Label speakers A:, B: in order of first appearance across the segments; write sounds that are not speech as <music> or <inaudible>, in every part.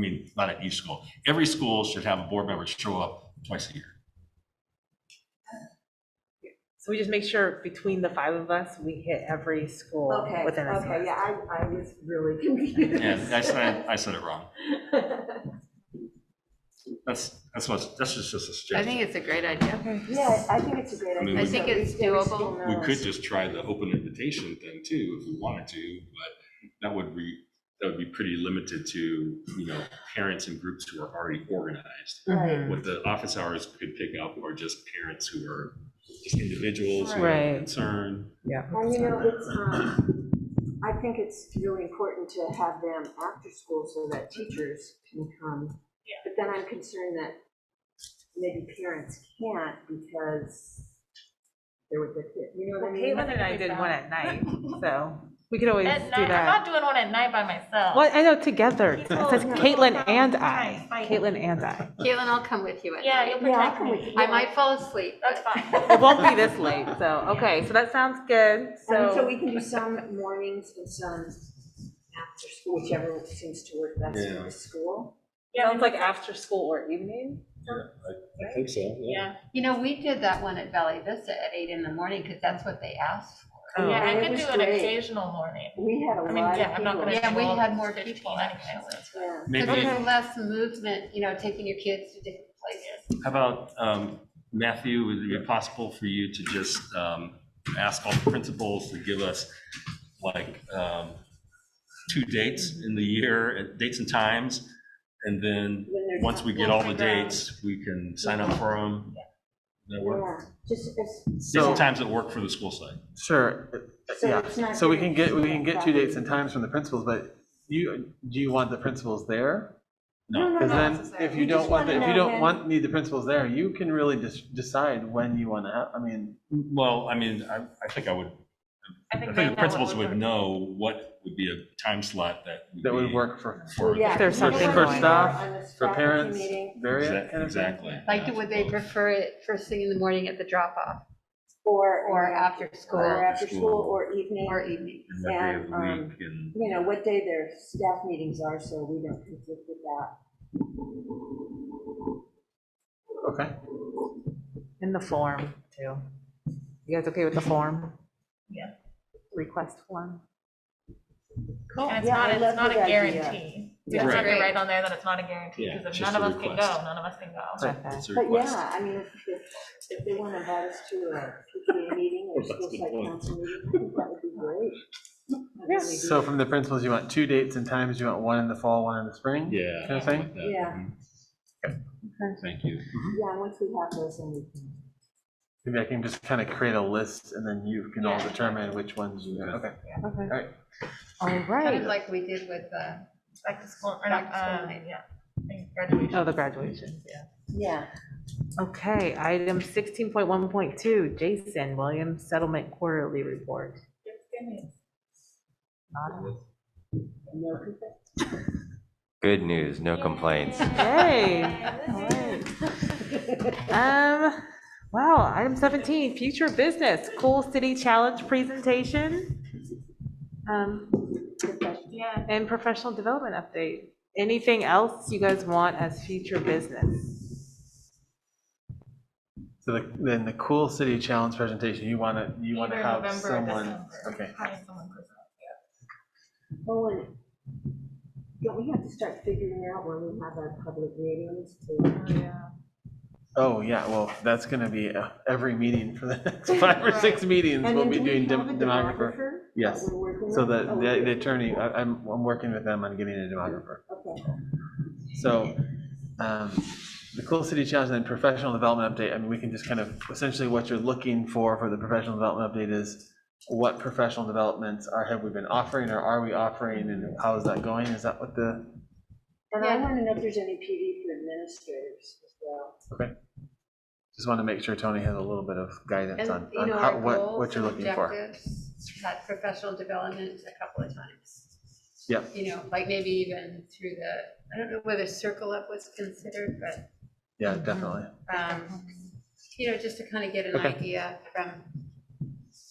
A: I mean, not at each school. Every school should have a board member show up twice a year.
B: So we just make sure between the five of us, we hit every school
C: Okay,
B: within a
C: okay,
B: semester.
C: yeah, I, I was
B: <laughs>
C: really confused. <laughs>
A: Yeah, I said, I said it wrong. That's, that's what, that's just just a
D: I
A: suggestion.
D: think it's a great idea.
C: Yeah, I think it's a great
A: I mean,
C: idea.
A: we- I
D: think
C: but
D: it's
C: every school
A: We
C: knows.
A: could just try the open invitation thing too, if we wanted to, but that would be, that would be pretty limited to, you know, parents and groups who are already organized.
E: Mm-hmm.
C: Right.
A: What the office hours could pick up are just parents who are just individuals who
B: Right.
A: are
B: Right.
A: concerned.
C: And you know, it's, um, I think it's really important to have them after school so that teachers can come.
B: Yeah.
C: But then I'm concerned that maybe parents can't because they're with their kid, you know
B: Well,
C: what I mean?
B: Caitlin and I did one
C: <laughs>
B: at night, so we could always
E: At
B: do
E: night, I'm
B: that.
E: not doing one at night by myself.
B: Well, I know, together. It <laughs>
E: People-
B: says Caitlin
E: people
B: and
E: from
B: I.
E: time fighting.
B: Caitlin and I.
D: Caitlin, I'll come with you at
E: Yeah,
D: night.
E: you'll
C: Yeah, I
E: protect
C: can with
E: me.
C: you.
D: I might fall asleep.
E: That's fine.
B: It won't be this late,
C: <laughs>
B: so, okay, so that sounds good,
C: And so
B: so.
C: we can do some mornings and some after school, whichever seems to work best for
A: Yeah.
C: the school.
B: Sounds like after school or evening?
A: I think so,
E: Yeah,
D: You know, we did that one at Valley Vista at eight in the morning because that's what they asked for.
B: Oh.
E: yeah,
C: it
E: I could
C: was
E: do an
C: great.
E: occasional morning.
C: We had a lot
E: I
C: of
E: mean,
C: people.
E: yeah, I'm not gonna.
D: Yeah, we
E: do all
D: had more
E: 15
D: people,
E: anyway,
D: actually.
E: so-
C: Yeah.
A: Maybe,
D: Because
A: how
D: there's less movement, you know, taking your kids to different places.
A: about, um, Matthew, would it be possible for you to just, um, ask all the principals to give us like, um, two dates in the year, uh, dates and times? And then,
C: When they're
A: once
C: done.
A: we get all the
E: We'll figure out.
A: dates, we can sign up for them. That work?
C: Yeah, just as.
A: Dates
F: So,
A: and times that work for the school site.
F: sure,
C: So
F: yeah,
C: it's not
F: so we
C: gonna
F: can get, we
C: be
F: can
C: that
F: get two
C: bad.
F: dates and times from the principals, but you, do you want the principals there?
A: No.
C: No, no,
F: Because
C: no.
F: then, if
C: We
F: you don't
C: just
F: want, the-
C: wanna
F: if you
C: know
F: don't
C: when-
F: want, need the principals there, you can really just decide when you want to have, I mean,
A: Well, I mean, I, I think I would,
B: I
A: I
B: think they
A: think
B: know
A: the principals
B: what
A: would
B: we're-
A: know what would be a time slot that.
F: that would
A: be
F: work for,
A: For.
C: Yeah,
B: If there's
C: you don't
B: something for
C: wanna be there
F: staff,
C: on the
F: for
C: faculty
F: parents,
C: meeting
F: various
A: Exact-
F: kind of thing.
A: Exactly.
D: Like,
A: yeah, I
D: would they
A: suppose.
D: prefer it first thing in the morning at the drop off
C: Or. uh,
D: or after school
C: Or after school or evening,
D: or e- evening?
A: And what day of
C: and,
A: the
C: um,
A: week and-
C: you know, what day their staff meetings are, so we don't conflict with that.
F: Okay,
B: In the form, too. You guys okay with the form?
E: Yeah.
B: Request form?
E: And it's
C: Yeah,
E: not,
C: I
E: it's
C: love
E: not a
C: that idea.
E: guarantee. We just
A: Right.
E: have to write on there that it's not a guarantee,
A: Yeah,
E: because if
A: just
E: none of
A: a
E: us can
A: request.
E: go, none of us can go.
B: Okay.
A: It's a
C: But
A: request.
C: yeah, I mean, if, if, if they want to invite us to
A: <laughs>
C: a PTA meeting or
A: That's a
C: school
A: good
C: site
A: point.
C: council meeting, I think that would be great. I'd really be-
F: so from the principals, you want two dates and times, you want one in the fall, one in the spring?
A: Yeah.
F: Kind of thing?
A: that. Mm-hmm.
C: Yeah.
A: Thank you.
C: Yeah, once we have those, then we can.
F: Maybe I can just kind of create a list and then you can all
E: Yeah.
F: determine which ones you, okay.
B: Okay.
F: Alright.
B: All
D: Kind of
B: right.
D: like we did with, uh,
E: Back to school, or not,
D: Back to school
E: um,
D: night.
E: yeah, and graduation.
B: Oh, the graduation, yeah.
C: Yeah.
B: Okay, item sixteen point one point two, Jason Williams Settlement Quarterly Report. Nada.
G: Good news, no complaints.
B: Hey, all right. Um, wow, item seventeen, future business, cool city challenge presentation. Um,
E: Yeah,
B: and professional development update. Anything else you guys want as future business?
F: So the- then the cool city challenge presentation, you want to, you want to
E: Either
F: have
E: November or
F: someone,
E: December.
F: okay.
E: Have someone present.
C: Oh, and don't we have to start figuring out when we have our public meetings to?
F: Oh, yeah, well, that's going to be uh, every meeting for the <laughs> next five or
E: Right.
F: six meetings,
C: And
F: we'll
C: then
F: be
C: do we
F: doing
C: have a
F: dem- demographer.
C: demographer? that
F: Yes.
C: we're working
F: So
C: on?
F: the,
C: Oh, we
F: the
C: do.
F: the attorney, I- I'm, I'm working with them on getting a demographer.
C: Okay.
F: So, um, the cool city challenge and then professional development update, I mean, we can just kind of, essentially what you're looking for for the professional development update is what professional developments are, have we been offering or are we offering and how is that going? Is that what the?
C: And I
D: Yeah.
C: want to know if there's any PD for administrators as well.
F: Just want to make sure Tony has a little bit of guidance
D: And,
F: on,
D: you
F: on
D: know,
F: how-
D: our
F: what, what
D: goals
F: you're
D: and
F: looking for.
D: objectives, that professional development a couple of times.
F: Yep.
D: You know, like maybe even through the, I don't know whether circle up was considered, but,
F: Yeah, definitely.
D: um, you know, just to kind of get an
F: Okay.
D: idea from,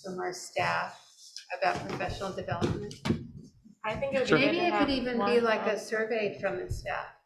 D: from our staff about professional development.
E: I think it would
D: Maybe
E: be. good to
D: it could
E: have
D: even be
E: one
D: like a
E: of-
D: survey from the staff,